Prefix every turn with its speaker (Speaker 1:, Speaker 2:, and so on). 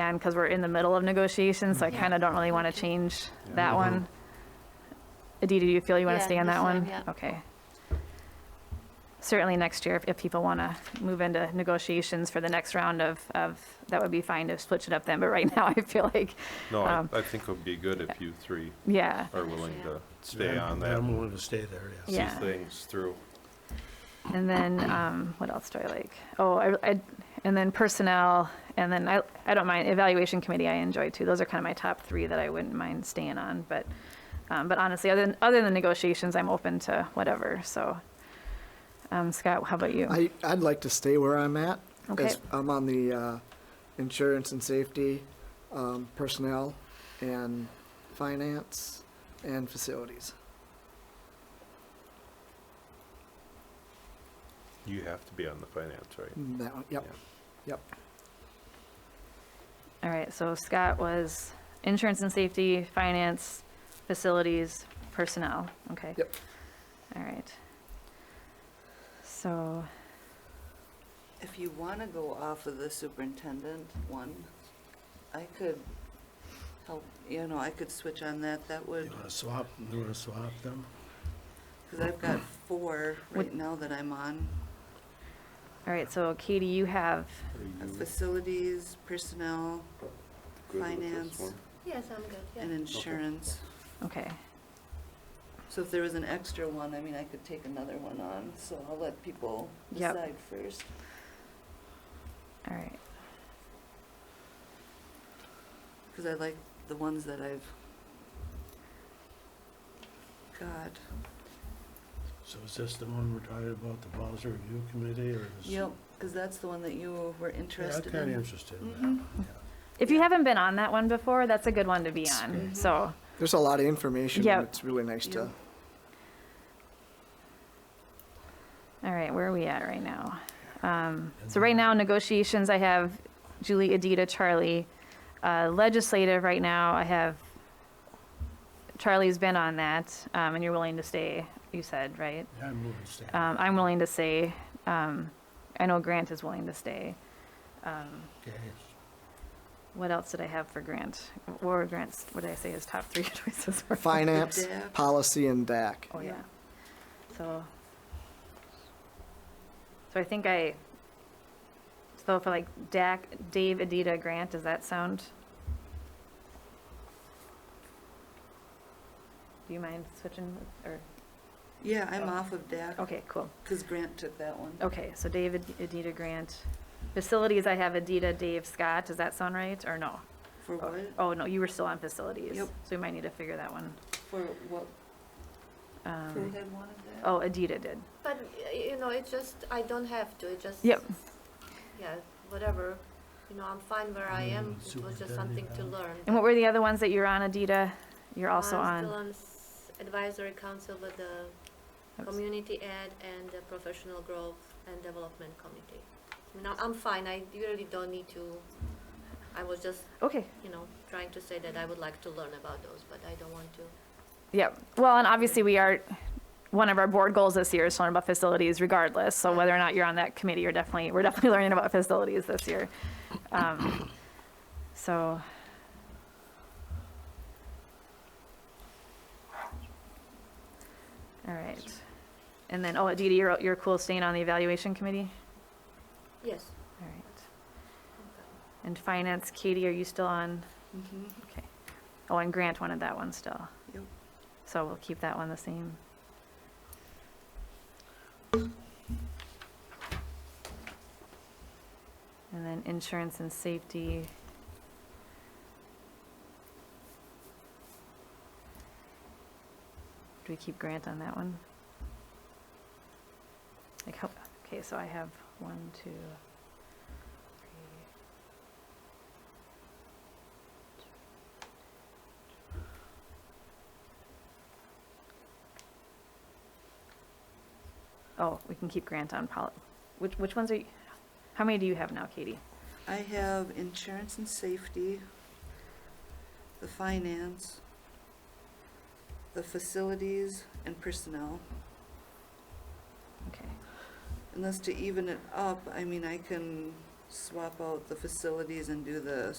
Speaker 1: again because we're in the middle of negotiations, so I kind of don't really want to change that one. Aditi, do you feel you want
Speaker 2: Yeah,
Speaker 1: to stay on
Speaker 2: this
Speaker 1: that
Speaker 2: time,
Speaker 1: one?
Speaker 2: yeah.
Speaker 1: Okay. Certainly next year, if- if people want to move into negotiations for the next round of, of, that would be fine to switch it up then, but right now I feel like,
Speaker 3: No, I,
Speaker 1: Um,
Speaker 3: I think it would be good if you three
Speaker 1: yeah.
Speaker 3: are willing to stay
Speaker 4: Yeah,
Speaker 3: on
Speaker 4: I'm- I'm
Speaker 3: that,
Speaker 4: willing to stay there, yes.
Speaker 3: see
Speaker 1: Yeah.
Speaker 3: things through.
Speaker 1: And then, um, what else do I like? Oh, I, I- and then personnel, and then I, I don't mind, evaluation committee I enjoy too. Those are kind of my top three that I wouldn't mind staying on, but, um, but honestly, other than, other than negotiations, I'm open to whatever, so. Um, Scott, how about you?
Speaker 5: I, I'd like to stay where I'm at.
Speaker 1: Okay.
Speaker 5: As- I'm on the uh, insurance and safety, um, personnel, and finance, and facilities.
Speaker 3: You have to be on the finance, right?
Speaker 5: That one, yep.
Speaker 1: All right, so Scott was insurance and safety, finance, facilities, personnel, okay?
Speaker 5: Yep.
Speaker 1: All right. So,
Speaker 6: If you want to go off of the superintendent one, I could help, you know, I could switch on that, that
Speaker 4: You
Speaker 6: would,
Speaker 4: want to swap, you want to swap them?
Speaker 6: because I've got four right
Speaker 1: Would-
Speaker 6: now that I'm on.
Speaker 1: all right, so Katie, you have,
Speaker 6: Uh, Facilities, personnel,
Speaker 3: Good with this
Speaker 6: Finance.
Speaker 3: one?
Speaker 2: Yes, I'm good,
Speaker 6: and
Speaker 2: yeah.
Speaker 6: insurance.
Speaker 1: okay.
Speaker 6: So if there was an extra one, I mean, I could take another one on, so I'll let people
Speaker 1: Yep.
Speaker 6: decide first.
Speaker 1: All right,
Speaker 6: Because I like the ones that I've got.
Speaker 4: So is this the one we're talking about, the policy review committee, or is?
Speaker 6: Yep, because that's the one that you were
Speaker 4: Yeah, I'm
Speaker 6: interested
Speaker 4: kind of
Speaker 6: in.
Speaker 4: interested in that.
Speaker 1: If you haven't been on that one before, that's a good one to be on.
Speaker 5: great.
Speaker 1: So,
Speaker 5: There's a lot of information.
Speaker 1: Yep.
Speaker 5: and It's really nice to,
Speaker 6: Yep.
Speaker 1: all right, where are we at right now? Um, so right now negotiations, I have Julie, Adita, Charlie. Uh, legislative right now, I have Charlie's been on that, um, and you're willing to stay. You said right.
Speaker 4: Yeah, I'm willing to stay.
Speaker 1: Um, I'm willing to stay. Um, I know Grant is willing to stay. Um,
Speaker 4: Okay.
Speaker 1: what else did I have for Grant? What were Grant's? What did I say his top three choices were?
Speaker 5: finance,
Speaker 6: DAC.
Speaker 5: policy, and DAC.
Speaker 1: Oh, yeah.
Speaker 6: Yeah.
Speaker 1: So, so I think I, so for like DAC, Dave, Adita, Grant, does that sound? Do you mind switching with- or,
Speaker 6: Yeah, I'm off of DAC,
Speaker 1: okay, cool.
Speaker 6: because Grant took that one.
Speaker 1: Okay, so David, Adita, Grant. Facilities, I have Adita, Dave, Scott. Does that sound right or no?
Speaker 6: For what?
Speaker 1: Oh, no, you were still on facilities.
Speaker 6: Yep.
Speaker 1: So we might need to figure that one.
Speaker 6: For what?
Speaker 1: Um,
Speaker 6: Who had one of that?
Speaker 1: Uh-huh. Oh, Adita did.
Speaker 2: But, y- you know, it's just, I don't have to, it just.
Speaker 1: Yep.
Speaker 2: Yeah, whatever, you know, I'm fine where I am,
Speaker 4: Mm,
Speaker 2: it was just
Speaker 4: superintendent
Speaker 2: something to
Speaker 4: eval-
Speaker 2: learn.
Speaker 1: And what were the other ones that you're on, Adita? You're also
Speaker 2: Uh, I'm
Speaker 1: on?
Speaker 2: still on s- advisory council with the community ed and the professional growth and development committee. No, I'm fine, I really don't need to, I was just,
Speaker 1: Okay,
Speaker 2: you know, trying to say that I would like to learn about those, but I don't want to.
Speaker 1: yeah. Well, and obviously we are, one of our board goals this year is to learn about facilities regardless. So whether or not you're on that committee, you're definitely, we're definitely learning about facilities this year. Um, So. All right. And then, oh, Dee Dee, you're, you're cool staying on the evaluation committee?
Speaker 2: Yes.
Speaker 1: All right. And finance, Katie, are you still on?
Speaker 6: Mhm.
Speaker 1: Okay. Oh, and Grant wanted that one still.
Speaker 6: Yep.
Speaker 1: So we'll keep that one the same. And then insurance and safety. Do we keep Grant on that one? Like, how, okay, so I have one, two, three, Oh, we can keep Grant on poli, which, which ones are, you? how many do you have now, Katie?
Speaker 6: I have insurance and safety, the finance, the facilities, and personnel.
Speaker 1: Okay,
Speaker 6: Unless to even it up, I mean, I can swap out the facilities and do the